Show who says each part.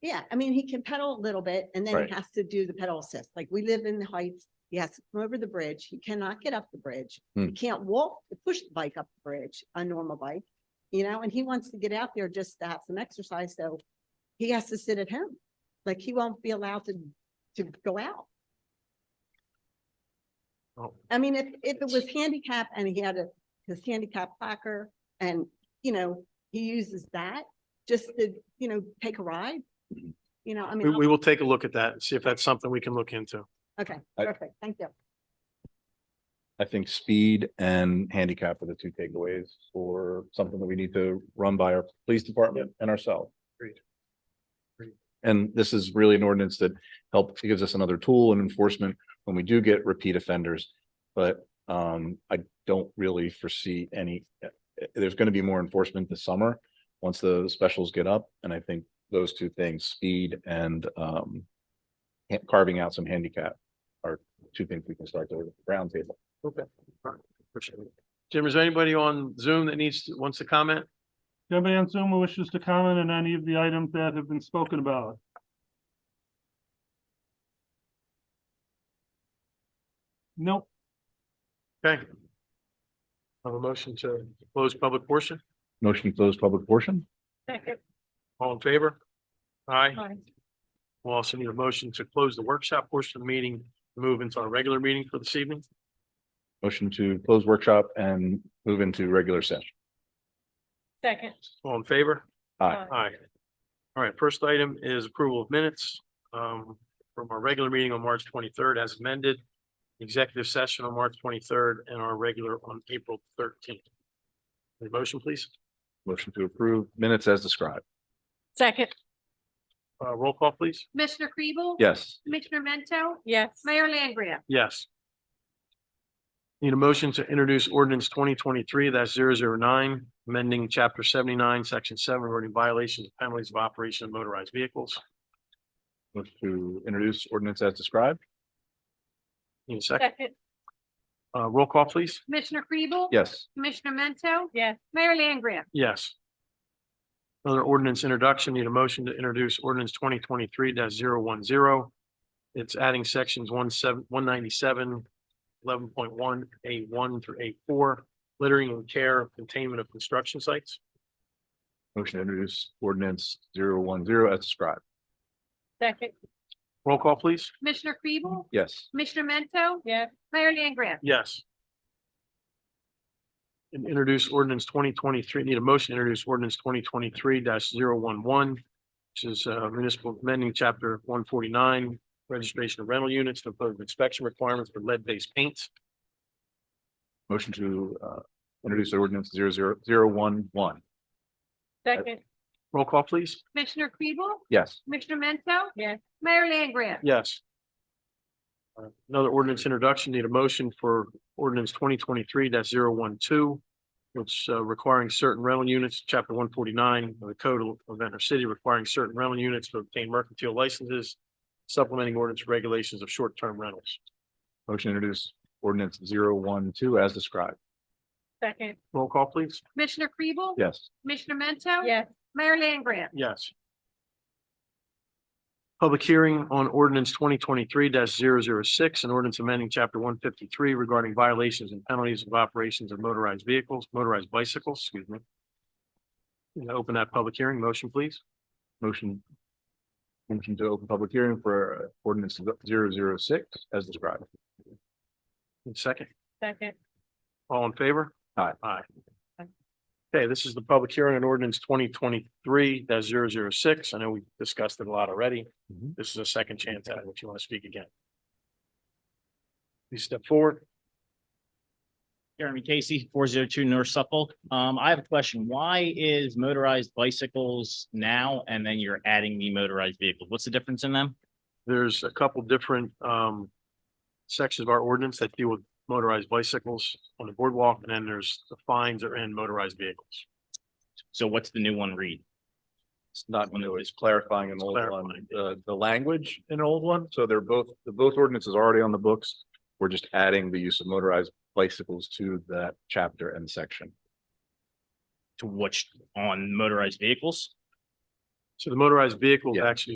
Speaker 1: Yeah, I mean, he can pedal a little bit and then
Speaker 2: Right.
Speaker 1: he has to do the pedal assist. Like we live in the heights. He has to come over the bridge. He cannot get up the bridge. He
Speaker 2: Hmm.
Speaker 1: can't walk, push the bike up the bridge, a normal bike. You know, and he wants to get out there just to have some exercise, so he has to sit at home. Like he won't be allowed to, to go out.
Speaker 3: Oh.
Speaker 1: I mean, if, if it was handicap and he had a, his handicap placard and, you know, he uses that just to, you know, take a ride.
Speaker 2: Mhm.
Speaker 1: You know, I
Speaker 3: We,
Speaker 1: mean,
Speaker 3: we will take a look at that, and see if that's something we can look into.
Speaker 1: okay,
Speaker 2: I-
Speaker 1: perfect, thank you.
Speaker 2: I think speed and handicap are the two takeaways or something that we need to run by our police department and ourselves.
Speaker 3: Agreed. Agreed.
Speaker 2: And this is really an ordinance that helps, gives us another tool in enforcement when we do get repeat offenders. But um, I don't really foresee any, eh, eh, there's going to be more enforcement this summer once the specials get up. And I think those two things, speed and um, ha- carving out some handicap are two things we can start to round table.
Speaker 3: Okay. Jim, is there anybody on Zoom that needs, to- wants to comment?
Speaker 4: Do you have any on Zoom who wishes to comment on any of the items that have been spoken about? Nope.
Speaker 3: Okay. Have a motion to close public portion,
Speaker 2: Motion to close public portion?
Speaker 3: all in favor? Aye.
Speaker 1: Aye.
Speaker 3: We'll also need a motion to close the workshop portion of the meeting, move into our regular meeting for this evening.
Speaker 2: Motion to close workshop and move into regular session.
Speaker 5: Second.
Speaker 3: All in favor?
Speaker 2: Aye.
Speaker 3: Aye. All right, first item is approval of minutes um from our regular meeting on March twenty-third as amended. Executive session on March twenty-third and our regular on April thirteenth. The motion, please.
Speaker 2: Motion to approve minutes as described.
Speaker 5: Second,
Speaker 3: Uh, roll call, please.
Speaker 6: Commissioner Kribel?
Speaker 2: Yes.
Speaker 6: Commissioner Mento?
Speaker 5: yes.
Speaker 6: Mayor Langria?
Speaker 3: Yes. Need a motion to introduce ordinance twenty twenty-three 9 amending chapter seventy-nine, section seven, regarding violations and penalties of operation of motorized vehicles.
Speaker 2: Motion to introduce ordinance as described.
Speaker 3: Need a second?
Speaker 5: Second,
Speaker 3: Uh, roll call, please.
Speaker 6: Commissioner Kribel?
Speaker 2: Yes.
Speaker 6: Commissioner Mento?
Speaker 5: yes.
Speaker 6: Mayor Langria?
Speaker 3: Yes. Another ordinance introduction, need a motion to introduce ordinance twenty twenty-three 10 It's adding sections one seven, one ninety-seven, eleven point one, A one through A four, littering and care of containment of construction sites.
Speaker 2: Motion to introduce ordinance zero one zero as described.
Speaker 5: Second, Mm-hmm.
Speaker 3: Roll call, please.
Speaker 6: Commissioner Kribel?
Speaker 2: Yes.
Speaker 6: Commissioner Mento?
Speaker 5: yes.
Speaker 6: Mayor Langria?
Speaker 3: Yes. And introduce ordinance twenty twenty-three, need a motion to introduce ordinance twenty twenty-three 11 which is uh, municipal amending chapter one forty-nine, registration of rental units, to impose inspection requirements for lead-based paints.
Speaker 2: Motion to uh introduce ordinance zero zero zero one one.
Speaker 5: Second,
Speaker 3: Roll call, please.
Speaker 6: Commissioner Kribel?
Speaker 2: Yes.
Speaker 6: Commissioner Mento?
Speaker 5: yes.
Speaker 6: Mayor Langria?
Speaker 3: Yes. Uh, Another ordinance introduction, need a motion for ordinance twenty twenty-three 12 which uh, requiring certain rental units, chapter one forty-nine of the Code of Ventnor City, requiring certain rental units to obtain mercantile licenses, supplementing ordinance regulations of short-term rentals.
Speaker 2: Motion to introduce ordinance zero one two as described.
Speaker 5: Second,
Speaker 3: Roll call, please.
Speaker 6: Commissioner Kribel?
Speaker 2: Yes.
Speaker 6: Commissioner Mento?
Speaker 5: yes.
Speaker 6: Mayor Langria?
Speaker 3: Yes. Public hearing on ordinance twenty twenty-three 6 an ordinance amending chapter one fifty-three regarding violations and penalties of operations of motorized vehicles, motorized bicycles, excuse me. I'm gonna Open that public hearing. Motion, please.
Speaker 2: Motion. Motion to open public hearing for uh, ordinance zero zero six as described.
Speaker 3: And Second,
Speaker 5: Second,
Speaker 3: all in favor?
Speaker 2: Aye.
Speaker 3: Aye. Okay, this is the public hearing on ordinance twenty twenty-three 6 I know we discussed it a lot already.
Speaker 2: Mhm.
Speaker 3: This is a second chance at it. If you want to speak again. Please step forward.
Speaker 7: Jeremy Casey, four zero two North Suffolk. Um, I have a question. Why is motorized bicycles now and then you're adding the motorized vehicle? What's the difference in them?
Speaker 3: There's a couple different um sections of our ordinance that deal with motorized bicycles on the boardwalk, and then there's the fines that are in motorized vehicles.
Speaker 7: So what's the new one read?
Speaker 2: It's not new, it's clarifying an old one,
Speaker 3: clarifying.
Speaker 2: the, the language, an old one, so they're both, the both ordinances already on the books. We're just adding the use of motorized bicycles to that chapter and section.
Speaker 7: To which on motorized vehicles?
Speaker 3: So the motorized vehicle
Speaker 2: Yeah.
Speaker 3: actually